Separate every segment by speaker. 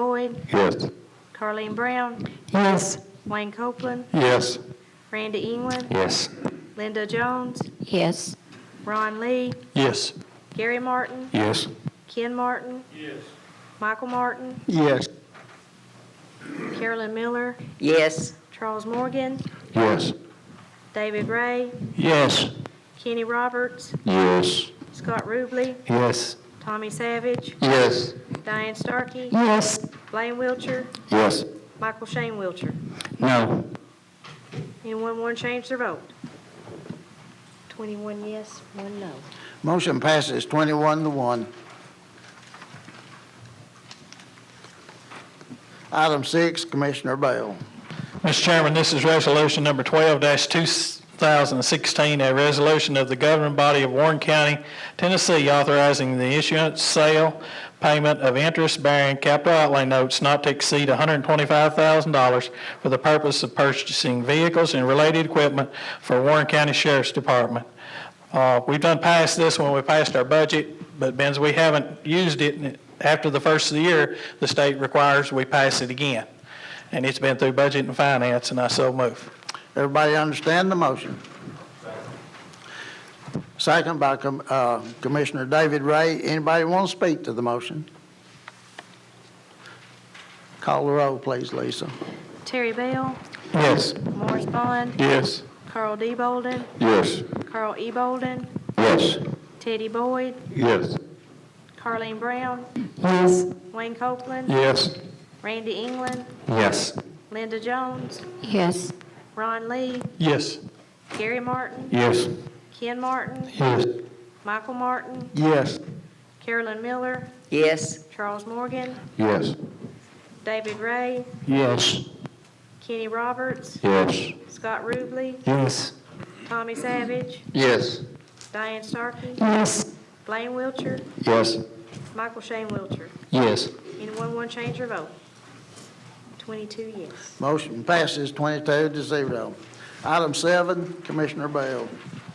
Speaker 1: Boyd,
Speaker 2: Yes.
Speaker 1: Carleen Brown,
Speaker 3: Yes.
Speaker 1: Wayne Copeland,
Speaker 2: Yes.
Speaker 1: Randy England,
Speaker 2: Yes.
Speaker 1: Linda Jones,
Speaker 3: Yes.
Speaker 1: Ron Lee,
Speaker 2: Yes.
Speaker 1: Gary Martin,
Speaker 2: Yes.
Speaker 1: Ken Martin. Yes. Michael Martin,
Speaker 2: Yes.
Speaker 1: Carolyn Miller,
Speaker 3: Yes.
Speaker 1: Charles Morgan,
Speaker 2: Yes.
Speaker 1: David Ray,
Speaker 2: Yes.
Speaker 1: Kenny Roberts,
Speaker 2: Yes.
Speaker 1: Scott Ruble,
Speaker 2: Yes.
Speaker 1: Tommy Savage,
Speaker 2: Yes.
Speaker 1: Diane Starkey,
Speaker 3: Yes.
Speaker 1: Blaine Wiltshire,
Speaker 2: Yes.
Speaker 1: Michael Shane Wiltshire.
Speaker 2: No.
Speaker 1: Anyone want to change their vote? 21 yes, one no.
Speaker 4: Motion passes 21 to 1. Item six, Commissioner Bell.
Speaker 5: Mr. Chairman, this is Resolution Number 12-2016, a resolution of the governing body of Warren County, Tennessee, authorizing the issuance, sale, payment of interest-bearing capital outlay notes not to exceed $125,000 for the purpose of purchasing vehicles and related equipment for Warren County Sheriff's Department. Uh, We've done past this when we passed our budget, but Benz, we haven't used it. and After the first of the year, the state requires we pass it again. And it's been through budget and finance, and I so move.
Speaker 4: Everybody understand the motion? Second by Com- uh, Commissioner David Ray. Anybody want to speak to the motion? Call the roll, please, Lisa.
Speaker 1: Terry Bell,
Speaker 2: Yes.
Speaker 1: Morris Bond,
Speaker 2: Yes.
Speaker 1: Carl D. Bolden,
Speaker 2: Yes.
Speaker 1: Carl E. Bolden,
Speaker 2: Yes.
Speaker 1: Teddy Boyd,
Speaker 2: Yes.
Speaker 1: Carleen Brown,
Speaker 3: Yes.
Speaker 1: Wayne Copeland,
Speaker 2: Yes.
Speaker 1: Randy England,
Speaker 2: Yes.
Speaker 1: Linda Jones,
Speaker 3: Yes.
Speaker 1: Ron Lee,
Speaker 5: Yes.
Speaker 1: Gary Martin,
Speaker 2: Yes.
Speaker 1: Ken Martin,
Speaker 2: Yes.
Speaker 1: Michael Martin,
Speaker 2: Yes.
Speaker 1: Carolyn Miller,
Speaker 3: Yes.
Speaker 1: Charles Morgan,
Speaker 2: Yes.
Speaker 1: David Ray,
Speaker 2: Yes.
Speaker 1: Kenny Roberts,
Speaker 2: Yes.
Speaker 1: Scott Ruble,
Speaker 2: Yes.
Speaker 1: Tommy Savage,
Speaker 2: Yes.
Speaker 1: Diane Starkey,
Speaker 3: Yes.
Speaker 1: Blaine Wiltshire,
Speaker 2: Yes.
Speaker 1: Michael Shane Wiltshire.
Speaker 2: Yes.
Speaker 1: Anyone want to change their vote? 22 yes.
Speaker 4: Motion passes 22 to 0. Item seven, Commissioner Bell.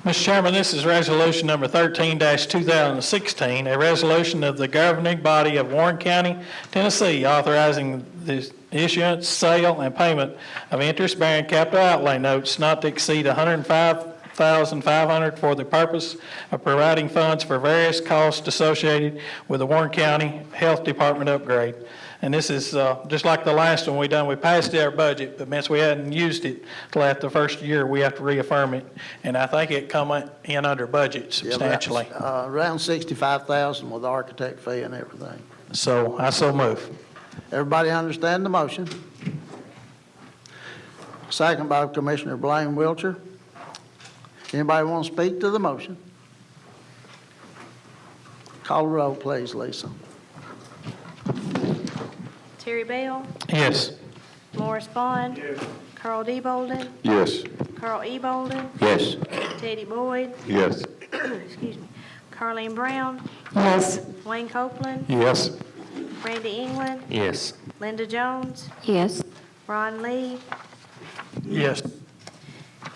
Speaker 5: Mr. Chairman, this is Resolution Number 13-2016, a resolution of the governing body of Warren County, Tennessee, authorizing the issuance, sale, and payment of interest-bearing capital outlay notes not to exceed $105,500 for the purpose of providing funds for various costs associated with the Warren County Health Department upgrade. And this is, uh, just like the last one we done, we passed our budget, but since we hadn't used it till after the first year, we have to reaffirm it. And I think it come in under budget
Speaker 4: Yeah, that's,
Speaker 5: substantially.
Speaker 4: uh, Around 65,000 with architect fee and everything.
Speaker 5: So I so move.
Speaker 4: Everybody understand the motion? Second by Commissioner Blaine Wiltshire. Anybody want to speak to the motion? Call the roll, please, Lisa.
Speaker 1: Terry Bell,
Speaker 5: Yes.
Speaker 1: Morris Bond, Carl D. Bolden,
Speaker 2: Yes.
Speaker 1: Carl E. Bolden,
Speaker 2: Yes.
Speaker 1: Teddy Boyd,
Speaker 2: Yes.
Speaker 1: excuse me, Carleen Brown,
Speaker 3: Yes.
Speaker 1: Wayne Copeland,
Speaker 2: Yes.
Speaker 1: Randy England,
Speaker 2: Yes.
Speaker 1: Linda Jones,
Speaker 3: Yes.
Speaker 1: Ron Lee,
Speaker 5: Yes.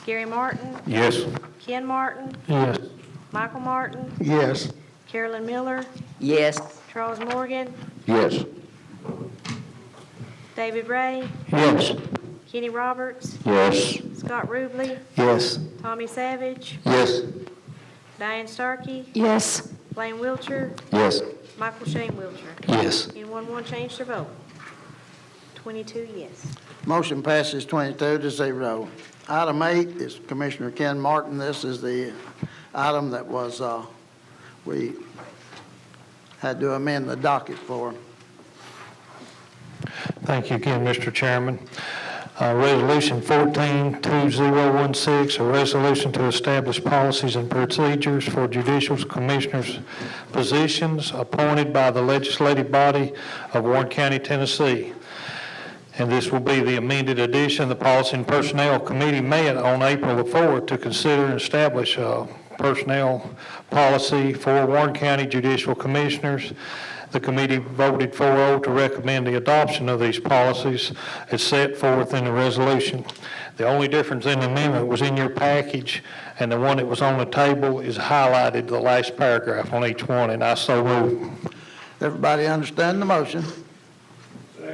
Speaker 1: Gary Martin,
Speaker 2: Yes.
Speaker 1: Ken Martin,
Speaker 5: Yes.
Speaker 1: Michael Martin,
Speaker 2: Yes.
Speaker 1: Carolyn Miller,
Speaker 3: Yes.
Speaker 1: Charles Morgan,
Speaker 2: Yes.
Speaker 1: David Ray,
Speaker 2: Yes.
Speaker 1: Kenny Roberts,
Speaker 2: Yes.
Speaker 1: Scott Ruble,
Speaker 2: Yes.
Speaker 1: Tommy Savage,
Speaker 2: Yes.
Speaker 1: Diane Starkey,
Speaker 3: Yes.
Speaker 1: Blaine Wiltshire,
Speaker 2: Yes.
Speaker 1: Michael Shane Wiltshire.
Speaker 2: Yes.
Speaker 1: Anyone want to change their vote? 22 yes.
Speaker 4: Motion passes 22 to 0. Item eight is Commissioner Ken Martin. This is the item that was, uh, we had to amend the docket for.
Speaker 6: Thank you again, Mr. Chairman. Uh, Resolution 14-2016, a resolution to establish policies and procedures for judicial commissioners' positions appointed by the legislative body of Warren County, Tennessee. And this will be the amended edition. The Policy and Personnel Committee met on April the 4th to consider and establish a personnel policy for Warren County Judicial Commissioners. The committee voted 4-0 to recommend the adoption of these policies as set forth in the resolution. The only difference in the amendment was in your package, and the one that was on the table is highlighted, the last paragraph on each one, and I so move.
Speaker 4: Everybody understand the motion?